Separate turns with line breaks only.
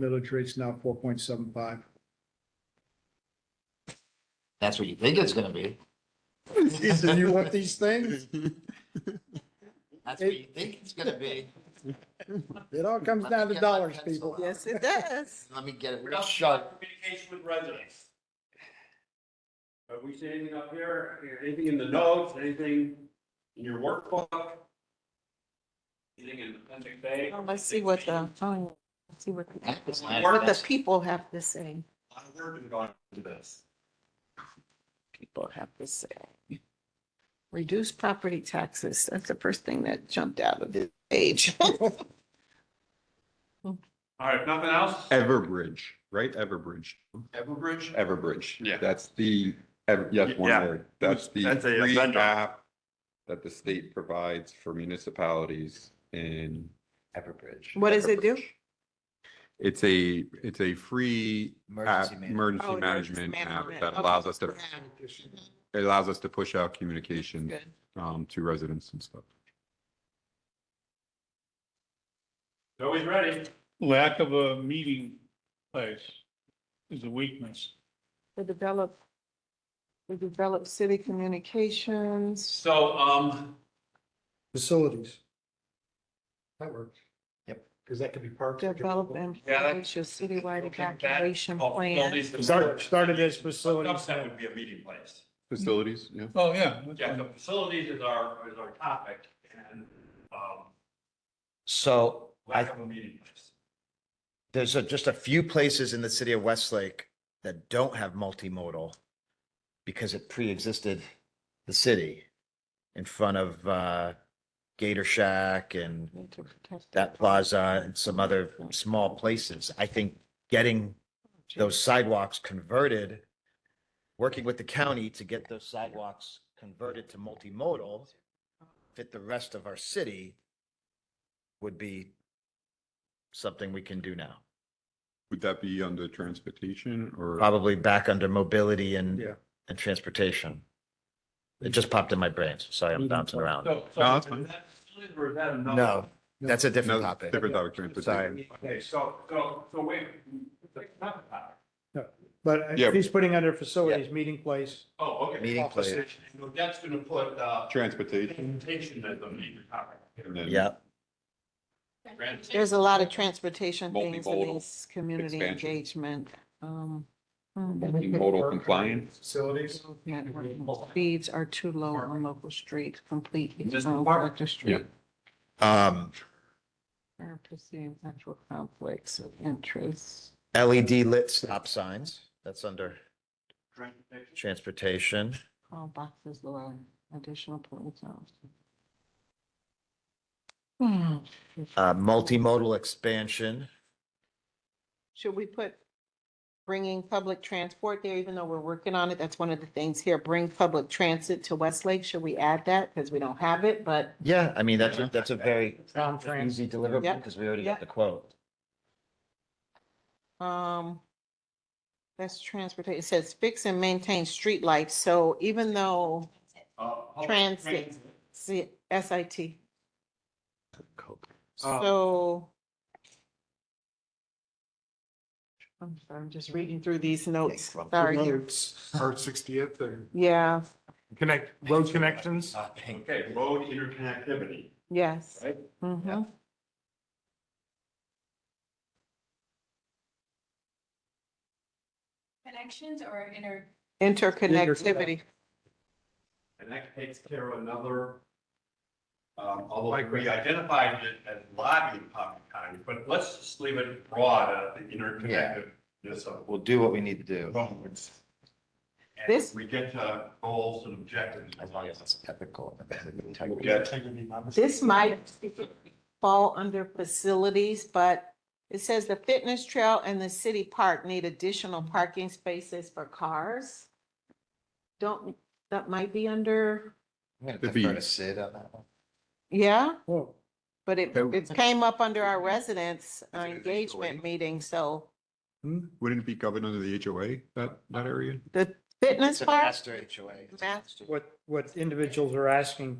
millage rate's now four point seven five.
That's what you think it's gonna be.
Ethan, you want these things?
That's what you think it's gonna be.
It all comes down to dollars, people.
Yes, it does.
Let me get it
We're
real
not
short.
Communication with residents. Have we seen anything up here, anything in the notes, anything in your workbook? Anything in appendix A?
Oh, Let's see what the, oh, let's see what, the-
That was my
Worth
what the
best.
people have to say.
A lot of work has gone into this.
People have to say. Reduce property taxes. That's the first thing that jumped out of his page.
All right, if nothing else?
Everbridge, right? Everbridge,
Everbridge?
Everbridge.
Yeah.
That's the, ev- yes, one
Yeah.
word. That's the
That's a
free
vendor.
app that the state provides for municipalities in Everbridge.
What does it do?
Everbridge. It's a, it's a free app,
Emergency management.
emergency
Oh,
management app
management.
that
Okay.
allows us to,
Yeah,
it allows us to push out communication
good.
um, to residents and stuff.
Always ready.
lack of a meeting place is a weakness.
To develop, to develop city communications.
So, um,
Facilities. That works.
Yep.
Because that could be parked.
Develop and
Yeah, that-
publish a citywide
Okay, that-
evacuation
oh,
plan.
facilities.
Start, started as facilities.
Upset would be a meeting place.
Facilities, yeah.
Oh, yeah.
Yeah, the facilities is our, is our topic and, um,
So I,
lack of a meeting place.
there's a- just a few places in the city of Westlake that don't have multimodal because it pre-existed the city in front of uh, Gator Shack and that plaza and some other small places. I think getting those sidewalks converted, working with the county to get those sidewalks converted to multimodal, fit the rest of our city would be something we can do now.
Would that be under transportation or?
Probably back under mobility and,
Yeah.
and transportation. It just popped in my brain. so Sorry, I'm bouncing around.
So, so
No, that's
is
fine.
that facilities or is that another?
No, that's a different
No,
topic.
Different topic, transportation.
Okay, so, so, so wait, that's not the topic.
But
Yeah.
he's putting under facilities, meeting place.
Oh, okay.
Meeting
Office
place.
session. So That's gonna put, uh,
Transportation.
presentation as a major topic.
and then
Yeah,
There's a lot of transportation things in
Multimodal
these community
expansion.
engagement. Um,
Multimodal compliance.
Facilities.
network. Speeds are too low on local streets, completely.
Just
on
park.
local street.
um,
Are perceived actual conflicts of interest.
LED E lit stop signs, that's under
Transportation.
transportation.
All boxes below additional points. on- Hmm.
Uh, multimodal expansion,
Should we put bringing public transport there, even though we're working on it? That's one of the things here. Bring public transit to Westlake. Should we add that? Because we don't have it, but
yeah, I mean, that's, a- that's a very
Sound trans.
easy deliverable
Yep,
because we already got
yep.
the quote.
Um, that's transportation, it says fix and maintain streetlights, so even though,
Uh, public
Transit. see, S I T,
Oh.
so. I'm sorry, I'm just reading through these notes,
from-
sorry,
Art sixtieth and
yeah,
connect, road connections.
Uh, Okay, road interconnectivity,
yes.
right?
Mhm.
Connections or inter,
Interconnectivity,
And that takes care of another, um, although we identified it as lobbying public time, but let's just leave it broad, uh, the interconnectedness of
We'll do what we need to do.
roads. And
This-
we get to goals and objectives.
As long as it's ethical.
Yeah.
this might fall under facilities, but it says the fitness trail and the city park need additional parking spaces for cars. Don't, that might be under,
I'm
The defer to fees.
Sid on that one.
yeah?
Whoa.
But it,
Oh.
it came up under our residents uh,
Is it an issue
engagement
already?
meeting, so
Hmm?
Wouldn't it be covered under the HOA, that, that area?
the fitness part,
Master HOA.
Master.
What, what individuals are asking